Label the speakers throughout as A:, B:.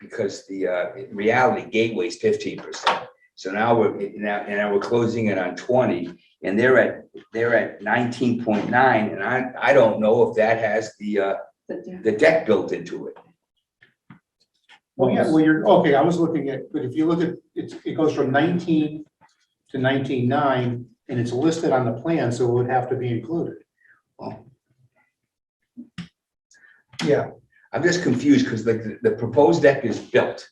A: because the, uh, in reality, Gateway's fifteen percent. So now we're, now, and now we're closing in on twenty, and they're at, they're at nineteen point nine, and I, I don't know if that has the, uh,
B: But yeah.
A: the deck built into it.
C: Well, yeah, well, you're, okay, I was looking at, but if you look at, it's, it goes from nineteen to nineteen-nine, and it's listed on the plan, so it would have to be included.
D: Yeah,
A: I'm just confused, because like, the- the proposed deck is built.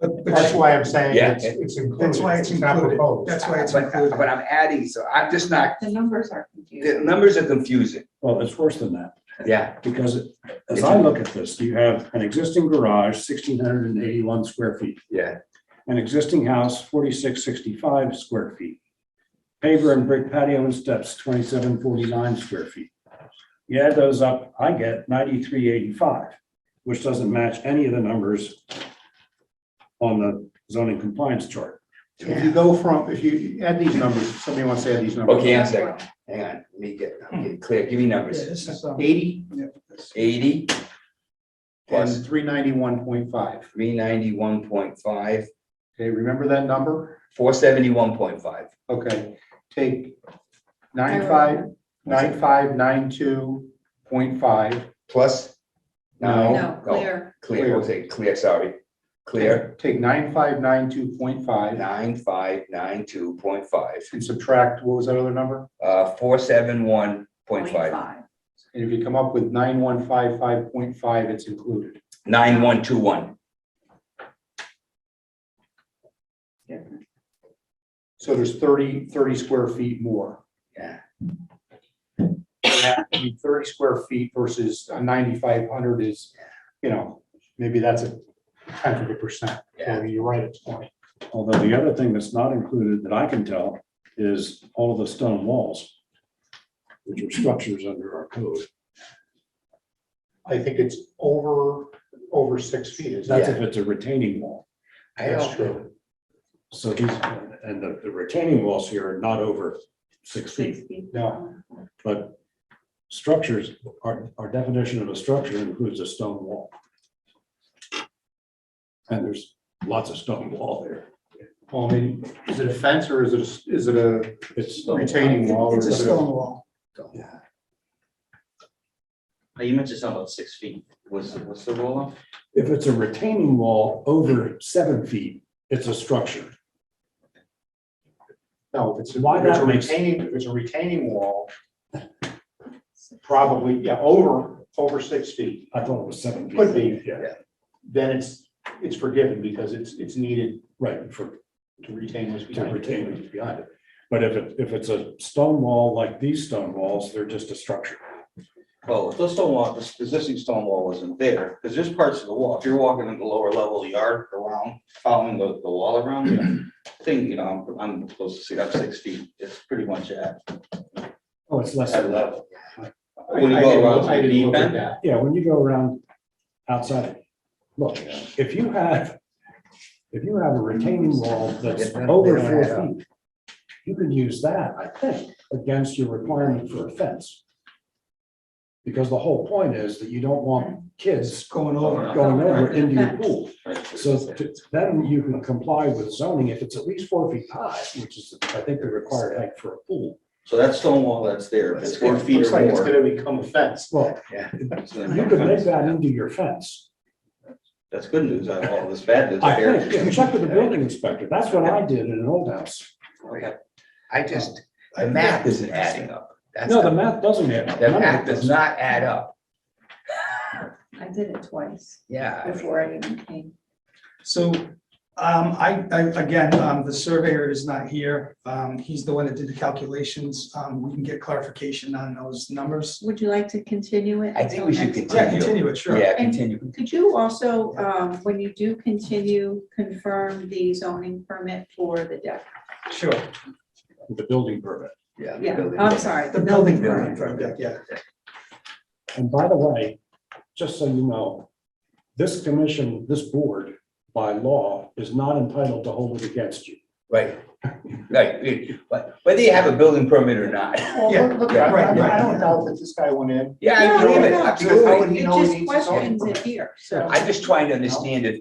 D: but,
C: That's
D: but
C: why I'm saying
A: Yeah.
C: it's, it's included.
D: that's why it's
C: not
D: included.
C: proposed.
D: That's why
A: But,
D: it's included.
A: but I'm adding, so I'm just not,
B: The numbers are
A: the
B: confusing.
A: numbers are confusing,
E: Well, it's worse than that,
A: yeah.
E: because as I look at this, you have an existing garage, sixteen hundred and eighty-one square feet.
A: Yeah.
E: An existing house, forty-six sixty-five square feet. Paver and brick patio and steps, twenty-seven forty-nine square feet. You add those up, I get ninety-three eighty-five, which doesn't match any of the numbers on the zoning compliance chart.
C: If you go from, if you add these numbers, somebody wants to add these numbers.
A: Okay, I'm sorry, hang on, let me get, I'm getting clear, give me
D: Yeah,
A: numbers.
D: this is, um,
C: Eighty
D: yeah, this-
A: Eighty plus
C: and three ninety-one point five.
A: three ninety-one point five,
C: Okay, remember that number?
A: four seventy-one point five.
C: Okay, take nine-five, nine-five, nine-two point five.
A: Plus?
B: No, clear.
A: Clear, we'll say clear, sorry. Clear,
C: Take nine-five, nine-two point five
A: nine, five, nine, two, point five,
C: and subtract, what was that other number?
A: uh, four, seven, one, Oh, point
B: Point
A: five,
B: five.
C: And if you come up with nine one five five point five, it's included.
A: nine, one, two, one.
C: So there's 30 30 square feet more.
A: Yeah.
C: And that would be Thirty square feet versus a ninety-five hundred is, you know, maybe that's a tenth of a percent. I mean, you're right, it's twenty.
E: Although the other thing that's not included that I can tell is all of the stone walls, which are structures under our code.
C: I think it's over, over six feet, is
E: That's
C: that?
E: if it's a retaining wall.
A: I
C: That's
A: don't-
C: true.
E: So these, and the, the retaining walls here are not over six feet,
B: Six feet.
C: No.
E: but structures, our, our definition of a structure includes a stone wall. And there's lots of stone wall there.
C: Well, I mean, is it a fence or is it, a- is it a
E: It's stone.
C: retaining wall? or
D: It's a
C: is it
D: stone wall.
E: Yeah.
F: Now, You mentioned something about six feet. What's, what's the rule of?
E: If it's a retaining wall over seven feet, it's a structure.
C: No, if it's, a-
E: Why
C: if it's a
E: not make-
C: retaining, if it's a retaining wall, probably, yeah, over, over six feet,
E: I thought it was seven. feet.
C: Could be.
E: Yeah,
C: then it's, it's forgiven because it's, it's needed
E: right, for
C: to retain what's
E: to
C: behind it.
E: retain what's behind it. But if it, if it's a stone wall like these stone walls, they're just a structure.
F: Well, if the stone wall, this existing stone wall wasn't there, because there's parts of the wall, if you're walking in the lower level of the yard around, following the, the wall around, you know, thing, you know, I'm, I'm supposed to see that six feet. It's pretty much at,
E: Oh, it's less
F: at
E: than that.
F: level.
C: I-
F: When you
C: I
F: go
C: didn't-
F: around to
C: I
F: the
C: didn't look
F: deep
C: at
F: end.
C: that.
E: Yeah, when you go around outside, look, if you have, if you have a retaining wall that's over four feet, you can use that, I think, against your requirement for a fence. Because the whole point is that you don't want kids going over, going over into your pool. So to- then you can comply with zoning if it's at least four feet high, which is, I think, the required height for a pool.
F: So that stone wall that's there, if it's four feet
C: Looks
F: or
C: like it's
F: more.
C: gonna become a fence.
E: Well,
F: it's gonna
E: you
F: be
E: could make
F: fence.
E: that into your fence.
F: That's good news. I all this bad news.
E: I think, yeah, check with the building inspector. That's what I did in an old house.
F: Okay.
A: I just, the math isn't adding up. That's,
E: No, the
A: the
E: math doesn't add up. None of
A: math
E: it
A: does
E: does.
A: not add up,
B: I did it twice
A: yeah. I mean,
B: before I even came.
D: So, um, I, I, again, um, the surveyor is not here. Um, he's the one that did the calculations. Um, we can get clarification on those numbers.
B: Would you like to continue it?
A: I think we
B: until
A: should
B: next
D: Yeah,
B: month?
D: continue it, sure.
A: Yeah, continue,
B: Could you also, um, when you do continue, confirm the zoning permit for the deck?
D: Sure.
E: The building permit.
A: yeah. the
B: Yeah,
A: building.
B: I'm sorry.
D: The building
A: Building
D: permit,
A: permit.
D: yeah.
E: And by the way, just so you know, this commission, this board by law is not entitled to hold it against you.
A: Right, right, it- but whether you have a building permit or not.
D: Yeah,
C: Well, look,
A: yeah,
C: I
D: right,
C: I- I
D: right.
C: don't doubt that this guy went in
A: Yeah, I
B: No,
A: believe it,
B: no, no.
C: Because how would
A: absolutely.
C: he
B: It
C: know he
B: just
C: needs his own
B: questions it here, so.
A: I'm just trying to understand if